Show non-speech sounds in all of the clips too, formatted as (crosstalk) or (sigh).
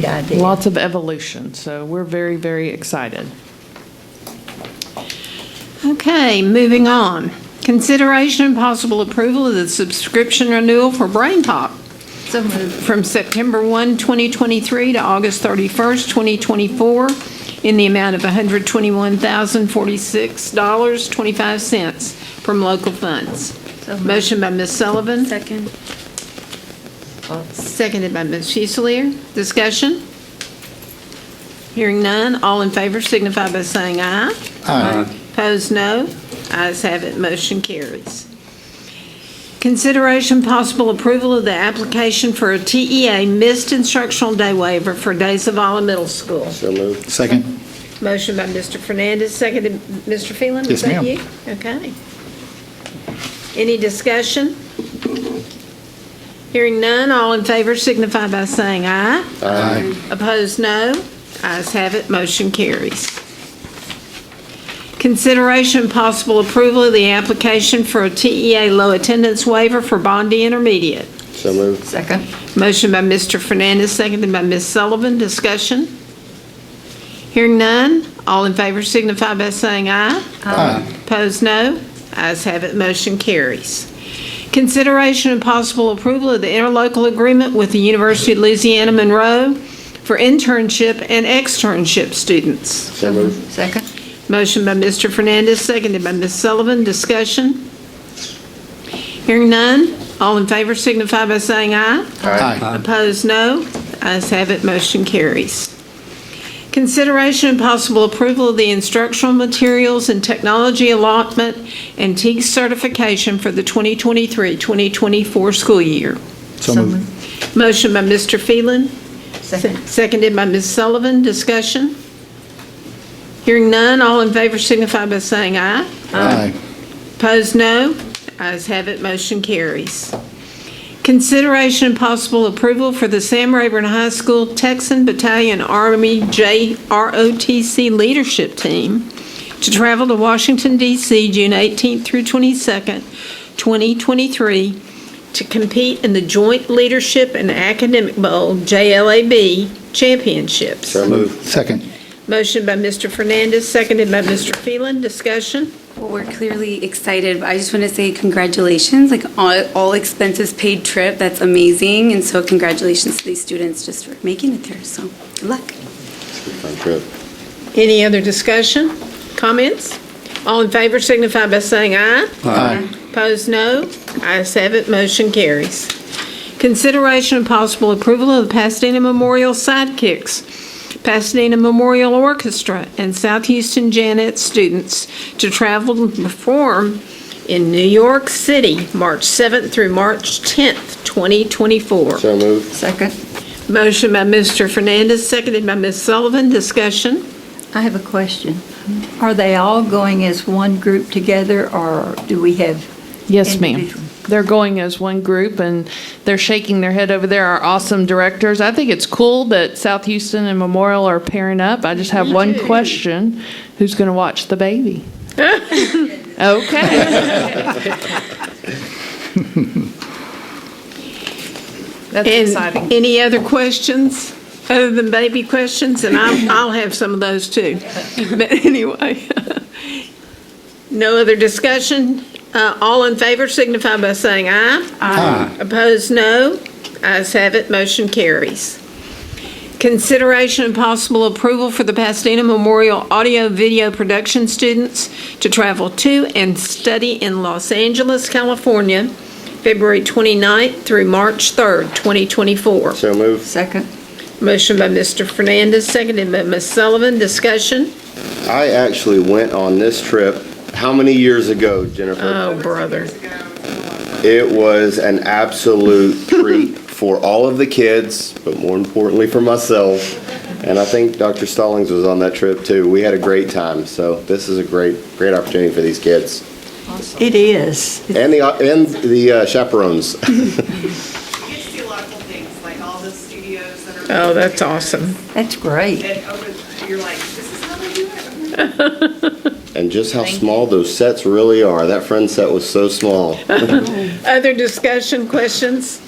Great idea. Lots of evolution, so we're very, very excited. Okay, moving on. Consideration and possible approval of the subscription renewal for Brain Pop So moved. from September 1, 2023 to August 31st, 2024, in the amount of $121,046.25 from local So funds. moved. Motion by Ms. Sullivan. Second. Seconded by Ms. Fusiliar. Discussion? Hearing none, all in favor signify by saying aye. Aye. Opposed, no. Ayes have it, motion carries. Consideration possible approval of the application for a TEA missed instructional day waiver for Days of Olive Middle School. So moved. Second. Motion by Mr. Fernandez, seconded, Mr. Phelan, Yes, is that ma'am. you? Okay. Any discussion? Hearing none, all in favor signify by saying aye. Aye. Opposed, no. Ayes have it, motion carries. Consideration and possible approval of the application for a TEA low attendance waiver for Bondi Intermediate. So moved. Second. Motion by Mr. Fernandez, seconded by Ms. Sullivan. Discussion? Hearing none. All in favor signify by saying aye. Aye. Opposed, no. Ayes have it, motion carries. Consideration and possible approval of the interlocal agreement with the University of Louisiana Monroe for internship and externship students. So moved. Second. Motion by Mr. Fernandez, seconded by Ms. Sullivan. Discussion? Hearing none. All in favor signify by saying aye. Aye. Opposed, no. Ayes have it, motion carries. Consideration and possible approval of the instructional materials and technology allotment and TEAG certification for the 2023-2024 school year. So So moved. moved. Motion by Mr. Phelan, Second. seconded by Ms. Sullivan. Discussion? Hearing none, all in favor signify by saying aye. Aye. Opposed, no. Ayes have it, motion carries. Consideration and possible approval for the Sam Rayburn High School Texan Battalion Army JROTC Leadership Team to travel to Washington DC June 18th through 22nd, 2023, to compete in the Joint Leadership and Academic Bowl JLAB Championships. So moved. Second. Motion by Mr. Fernandez, seconded by Mr. Phelan. Discussion? Well, we're clearly excited, but I just want to say congratulations, like all, all expenses paid trip. That's amazing. And so congratulations to these students just for making it there. So good luck. Fun trip. Any other discussion, comments? All in favor signify by saying aye. Aye. Opposed, no. Ayes have it, motion carries. Consideration and possible approval of the Pasadena Memorial Sidekicks, Pasadena Memorial Orchestra, and South Houston Janet students to travel and perform in New York City, March 7th through March 10th, 2024. So moved. Second. Motion by Mr. Fernandez, seconded by Ms. Sullivan. Discussion? I have a question. Are they all going as one group together, or do we have? Yes, ma'am. Individual. They're going as one group, and they're shaking their head over there, our awesome directors. I think it's cool that South Houston and Memorial are pairing up. I just have one question. Who's going to watch the baby? Okay. That's And exciting. Any other questions, other than baby questions? And (laughs) I'll, I'll have some of those too. But anyway, (laughs) no other discussion. Uh, All in favor signify by saying aye. Aye. Opposed, no. Ayes have it, motion carries. Consideration and possible approval for the Pasadena Memorial Audio Video Production students to travel to and study in Los Angeles, California, February 29th through March 3rd, 2024. So moved. Second. Motion by Mr. Fernandez, seconded by Ms. Sullivan. Discussion? I actually went on this trip, how many years ago, Uh. Jennifer? Oh, brother. It was an (laughs) absolute treat for all of the kids, but more importantly for myself. And I think Dr. Stallings was on that trip too. We had a great time. So this is a great, great opportunity for these kids It is. and the, and the uh, chaperones. You get to see a lot of cool things, like all the studios that are. Oh, that's awesome. That's great. And over, you're like, this is how they do it. And just how small those sets really are. That friend set was so small. Other discussion, questions?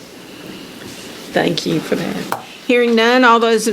Thank you for that. Hearing none, all those in